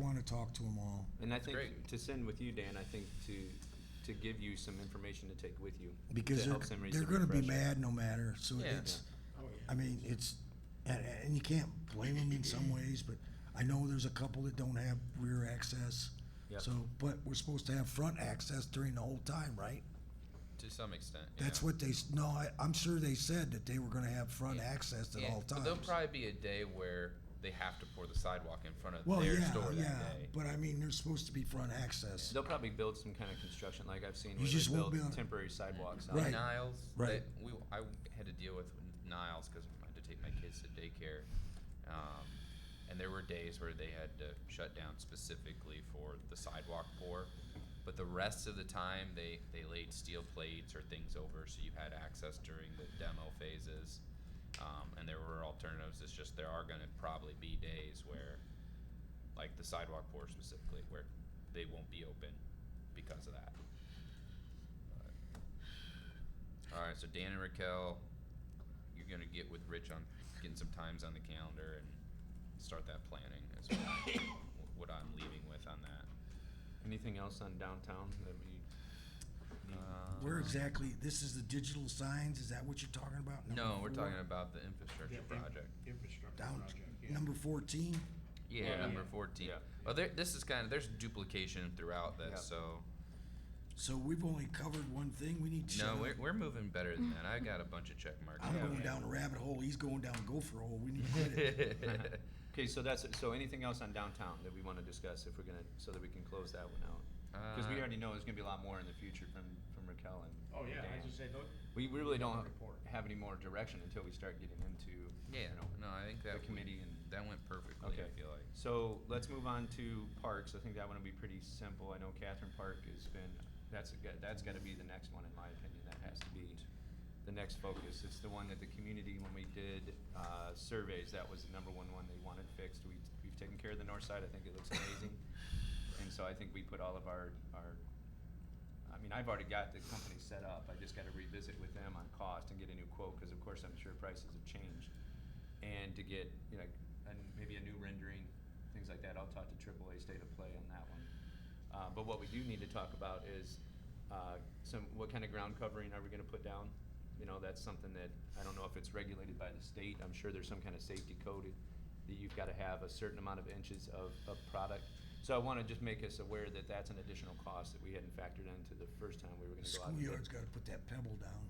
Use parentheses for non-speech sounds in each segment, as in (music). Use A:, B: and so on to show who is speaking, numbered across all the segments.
A: to talk to them all.
B: And I
C: That's
B: think
C: great.
B: to send with you, Dan, I think to to give you some information to take with you
A: Because
B: to
A: they're,
B: help somebody
A: they're
B: to
A: gonna be
B: refresh it.
A: mad no matter, so
C: Yeah.
A: it's, I mean, it's, and, and you can't blame them in
C: (laughs)
A: some ways, but I know there's a couple that don't have rear access.
B: Yep.
A: So, but we're supposed to have front access during the whole time, right?
C: to some extent. yeah.
A: That's what they, s- no, I, I'm sure they said that they were gonna have front
C: Yeah.
A: access at
C: Yeah,
A: all
C: But there'll
A: times.
C: probably be a day where they have to pour the sidewalk in front of
A: Well,
C: their
A: yeah,
C: store
A: yeah,
C: that day.
A: but I mean, there's supposed to be front access.
B: They'll probably build some kind of construction, like I've seen,
A: You
B: where
A: just
B: they
A: won't
B: build
A: be able-
B: temporary sidewalks. out.
A: Right.
C: Niles,
A: Right.
C: that we I had to deal with Niles because I had to take my kids to daycare, um, and there were days where they had to shut down specifically for the sidewalk pour, but the rest of the time they they laid steel plates or things over so you had access during the demo phases, um, and there were alternatives. It's just there are going to probably be days where, like the sidewalk pour specifically, where they won't be open because of that. All right, so Dan and Raquel, you're gonna get with Rich on getting some times on the calendar and start that planning. Is what,
B: (coughs)
C: I- what I'm leaving with on that.
B: Anything else on downtown that
C: (laughs)
B: we? (laughs)
C: Um,
A: Where exactly, this is the digital signs, is that what you're talking about? Number
C: No, we're
A: four?
C: talking about the infrastructure
D: Yeah, in-
C: project.
D: Infrastructure
A: Down,
D: project, yeah.
A: number fourteen?
C: Yeah,
B: Yeah.
C: number fourteen.
B: Yeah.
C: Well, there, this is kind of there's duplication throughout this,
B: Yeah.
C: so
A: So we've only covered one thing, we need to shut
C: no,
A: up.
C: we're, we're moving better than that. I got a bunch of check marks.
A: I'm
C: down
A: going
C: there. (laughs)
A: down (laughs) a rabbit hole, he's going down a gopher hole, we need to quit it.
B: (laughs) Okay, so that's so. Anything else on downtown that we want to discuss if we're gonna, so that we can close that one out? Because we
C: Uh,
B: already know there's gonna be a lot more in the future from from Raquel and.
D: Oh, yeah,
B: Dan.
D: I just say, don't,
B: We we really don't
D: Report.
B: have any more direction until we start getting into.
C: yeah,
B: You know,
C: no, I think
B: the
C: that we-
B: committee and-
C: that went perfectly.
B: Okay.
C: I feel like.
B: So let's move on to parks. I think that one will be pretty simple. I know Catherine Park has been, that's, a- that's gotta be the next one, in my opinion. That has to be the next focus. It's the one that the community, when we did, uh, surveys, that was the number one one they wanted fixed. We, we've taken care of the north side. I think it looks amazing. And so I think we put all of our, our, I mean, I've already got the company set up. I just gotta revisit with them on cost and get a new quote, cause of course, I'm sure prices have changed and to get you know and maybe a new rendering, things like that. I'll talk to AAA State of Play on that one. Uh, but what we do need to talk about is uh, some what kind of ground covering are we going to put down? You know, that's something that I don't know if it's regulated by the state. I'm sure there's some kind of safety code that you've got to have a certain amount of inches of, of product. So I want to just make us aware that that's an additional cost that we hadn't factored into the first time we were going to go out. and bid.
A: Schoolyard's gotta put that pebble down.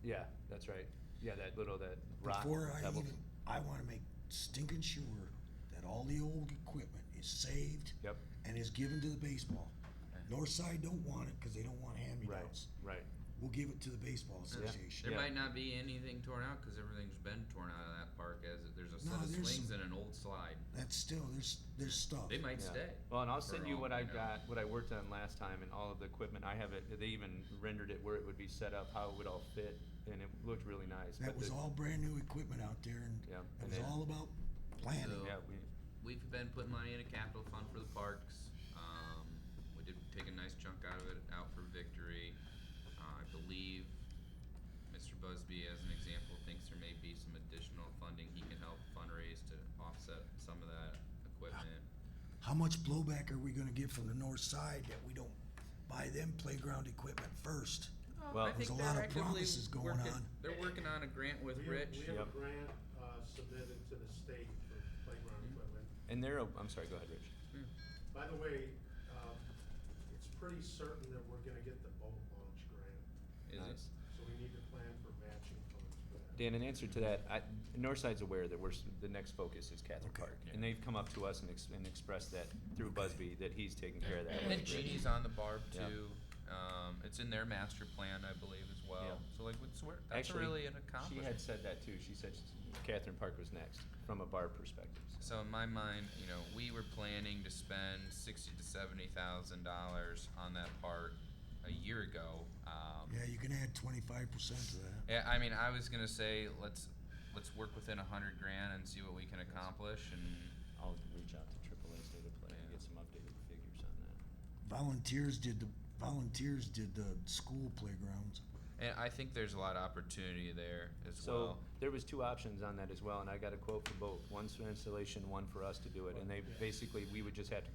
B: Yeah, that's right. Yeah, that little that rock
A: Before I
B: pebble.
A: even, I wanna make stinking sure that all the old equipment is saved
B: Yep.
A: and is given to the baseball.
C: Okay.
A: North side don't want it, cause they don't want
B: Right.
A: hand-me-downs.
B: Right.
A: We'll give it to the baseball
C: Yeah.
A: association.
C: There
B: Yeah.
C: might not be anything torn out because everything's been torn out of that park. As it- there's a set
A: No,
C: of
A: there's
C: swings
A: some-
C: and an old slide.
A: That's still, there's, there's stuff.
C: They might
B: Yeah.
C: stay.
B: Well, and I'll
C: for
B: send you
C: all
B: what
C: we
B: I've
C: know.
B: got, what I worked on last time and all of the equipment. I have it, they even rendered it where it would be set up, how it would all fit, and it looked really nice.
A: That
B: but
A: was
B: the-
A: all brand-new equipment out there and
B: Yeah,
A: it
B: and
A: was
B: then-
A: all about planning.
C: So-
B: Yeah, we,
C: We've been putting money in a capital fund for the parks. Um, we did take a nice chunk out of it out for victory. Uh, I believe Mr. Busby, as an example, thinks there may be some additional funding he can help fundraise to offset some of that equipment.
A: How much blowback are we gonna get from the north side that we don't buy them playground equipment first?
B: Well,
C: I
B: There's
C: think
A: a
C: they're
A: lot of
C: actively
A: promises going
C: working-
A: on.
C: They're working on a grant with
D: We have-
C: Rich.
D: We have a
B: Yep.
D: grant uh, submitted to the state for playground
B: Mm-hmm.
D: equipment.
B: and they're, oh, I'm sorry, go ahead, Rich.
C: Hmm.
D: By the way, um, it's pretty certain that we're gonna get the boat launch grant,
C: Is it?
B: Nice.
D: so we need to plan for matching funds for that.
B: Dan, in answer to that, I, Northside's aware that we're, s- the next focus is Catherine
A: Okay.
B: Park. And they've come up to us and ex- and expressed that through Busby, that he's taking care of that.
C: And then
B: with Rich.
C: Genie's on the barb
B: Yeah.
C: too. Um, it's in their master plan, I believe, as well.
B: Yeah.
C: So like, it's, wor- that's
B: Actually,
C: really an
B: She
C: accomplishment.
B: had said that too. She said Catherine Park was next, from a bar perspective. so.
C: so in my mind, you know, we were planning to spend sixty to seventy thousand dollars on that part a year ago. Um,
A: Yeah, you can add twenty-five percent to that.
C: yeah, I mean, I was gonna say let's let's work within a hundred grand and see what we can accomplish. And
B: I'll reach out to AAA State of Play and get some updated figures on that.
A: Volunteers did the, volunteers did the school playgrounds.
C: and I think there's a lot of opportunity there as
B: So
C: well.
B: there was two options on that as well, and I got a quote for both, one for installation, one for us to do it, and they basically, we would just have to